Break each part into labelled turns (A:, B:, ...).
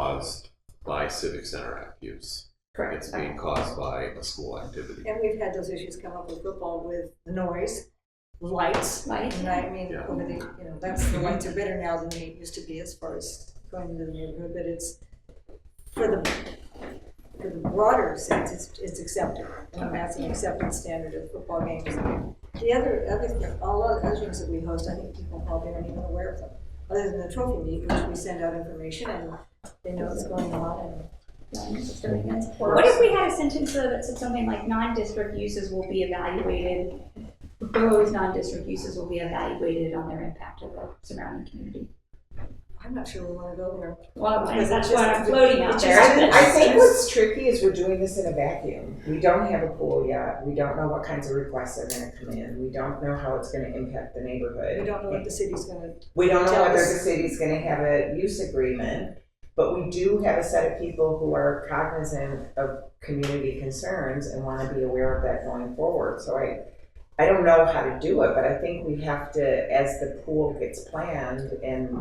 A: caused by civic center act use. It's
B: Correct.
A: being caused by a school activity.
C: And we've had those issues come up with football with the noise, lights.
B: Lights,
C: And I mean,
A: Yeah.
C: over the, you know, that's, the lights are better now than they used to be as far as going into the neighborhood, but it's, for the, for the broader sense, it's, it's accepted. And that's an accepted standard of football games. The other, other, all the other things that we host, I think people probably aren't even aware of them. Other than the trophy meet, which we send out information and they know what's going on and
B: What if we had a sentence though that said something like non-district uses will be evaluated, those non-district uses will be evaluated on their impact of the surrounding community?
C: I'm not sure we want to go there.
B: Well,
C: Because
B: that's
C: it
B: what
C: just-
B: I'm floating
C: it
B: out
C: just-
B: there.
D: I think what's tricky is we're doing this in a vacuum. We don't have a pool yet. We don't know what kinds of requests are gonna come in. We don't know how it's gonna impact the neighborhood.
C: We don't know what the city's gonna
D: We don't know
C: Tell
D: whether the
C: us.
D: city's gonna have a use agreement, but we do have a set of people who are cognizant of community concerns and wanna be aware of that going forward, so I, I don't know how to do it, but I think we have to, as the pool gets planned and,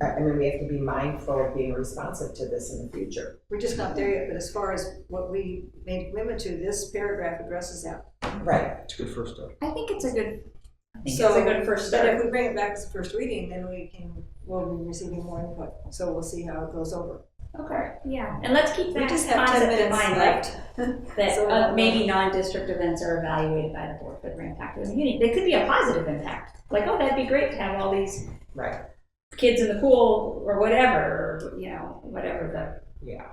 D: I, I mean, we have to be mindful of being responsive to this in the future.
C: We're just not there yet, but as far as what we made commitment to, this paragraph addresses that.
D: Right.
E: It's a good first step.
B: I think it's a good, I think it's
C: So,
B: a good first
C: But
B: step.
C: if we bring it back to first reading, then we can, we'll be receiving more input, so we'll see how it goes over.
B: Okay, yeah, and let's keep
C: We
B: that
C: just have ten
B: concept in
C: minutes
B: mind, like,
C: left.
B: that
C: So,
B: uh,
C: um,
B: maybe non-district events are evaluated by the board for their impact on the community. They could be a positive impact, like, oh, that'd be great to have all these
D: Right,
B: kids in the pool or whatever, or, you know, whatever the
D: yeah.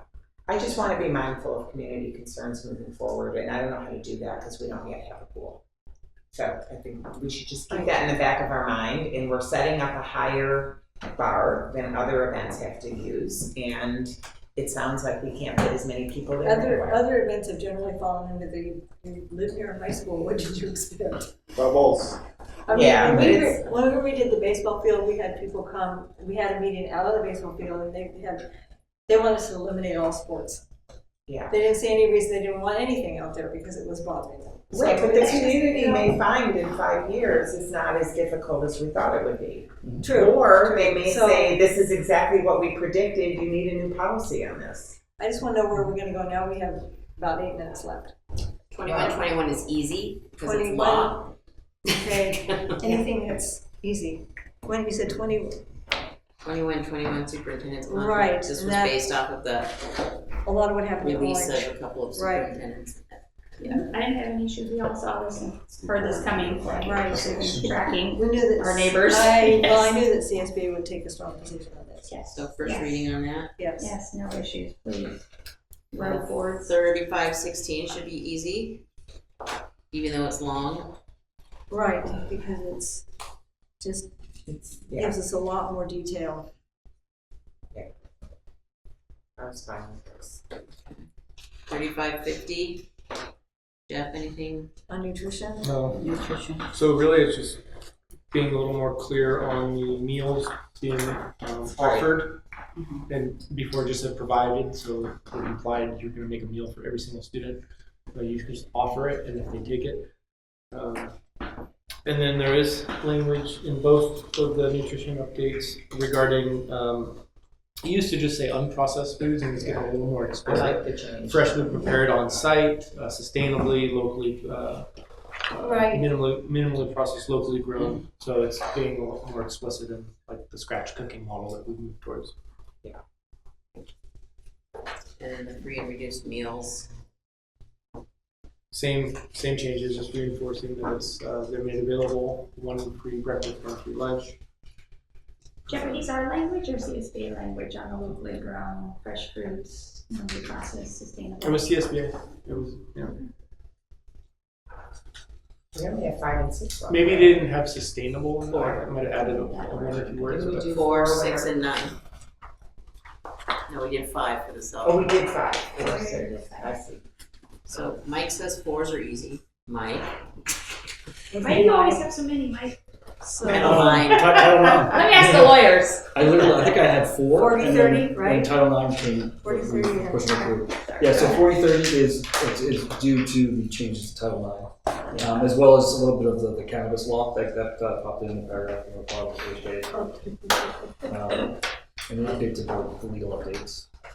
D: I just wanna be mindful of community concerns moving forward, and I don't know how to do that, cause we don't yet have a pool. So I think we should just keep that in the back of our mind, and we're setting up a higher bar than other events have to use, and it sounds like we can't fit as many people in
C: Other,
D: anyway.
C: other events have generally fallen into the, you live near a high school, what did you expect?
E: Bubbles.
C: I mean,
D: Yeah,
C: when
D: but
C: we
D: it's-
C: were- Whenever we did the baseball field, we had people come, we had a meeting out of the baseball field, and they had, they wanted us to eliminate all sports.
D: Yeah.
C: They didn't see any reason, they didn't want anything out there because it was bothering them. So
D: Right, but the
C: that's just-
D: community may find in five years it's not as difficult as we thought it would be.
C: True.
D: Or they may
C: So-
D: say, this is exactly what we predicted, you need a new policy on this.
C: I just want to know where we're gonna go now. We have about eight minutes left. Uh,
F: 21, 21 is easy because it's
C: 21.
F: law.
C: Okay, anything that's easy. When you said twenty,
F: 21, 21 superintendent's contract.
C: Right,
F: This
C: and
F: was
C: that-
F: based off of the
C: a lot of what happened in
F: release
C: Orange.
F: of a couple of
C: Right.
F: superintendents.
B: I didn't have any issues, we all saw this and heard this coming, like,
C: Right.
B: tracking.
C: We knew that.
B: Our neighbors.
C: I, well, I knew that CSBA would take a strong position on this,
B: Yes.
F: So first
B: Yes.
F: reading on that.
C: yes.
B: Yes, no issues, please.
F: Well,
B: Road board,
F: 35, 16 should be easy, even though it's long.
C: Right, because it's just
D: It's, yeah.
C: gives us a lot more detail.
D: I was fine with this.
F: 35, 50. Jeff, anything?
C: On nutrition,
E: No.
F: Nutrition.
E: So really, it's just being a little more clear on the meals being um, offered, and before just said provided, so it implied you're going to make a meal for every single student. But you just offer it, and if they take it. Um, and then there is language in both of the nutrition updates regarding. Um, it used to just say unprocessed foods, and it's getting a little
D: I
E: more explicit.
D: like the change.
E: freshly prepared on site, uh, sustainably, locally, uh, uh,
C: Right.
E: minimally, minimally processed, locally grown. So it's being a lot more explicit in like the scratch cooking model that we move towards.
F: And then the free and reduced meals.
E: Same same changes, just reinforcing that it's uh, they're made available one free breakfast, one free lunch.
B: Japanese our language or CSBA language on the locally grown fresh fruits, non processed,
E: It
B: sustainable?
E: was CSBA. It was yeah.
D: We only have five and six. left.
E: maybe they didn't have sustainable. in there. I might have added a, one or two words. But
F: Four, six, and nine. No, we did five for the
D: Oh,
F: self.
D: we did five. Four, six. I see.
F: So Mike says fours are easy. Mike.
B: Why do you always have so many, Mike?
D: Oh.
F: I don't mind.
G: I don't know.
B: Let me ask the lawyers.
G: I literally, I think I had four.
C: 40,
G: and then
C: 30, right?
G: When Title IX came.
C: 40, 30,
G: we were
C: yeah.
G: Pushing it through. Yeah, so forty thirty is, is- is due to the changes to Title IX, um, as well as a little bit of the- the cannabis law, that, that uh, popped in the paragraph in the report on the first page. Um, and an update to the the legal updates.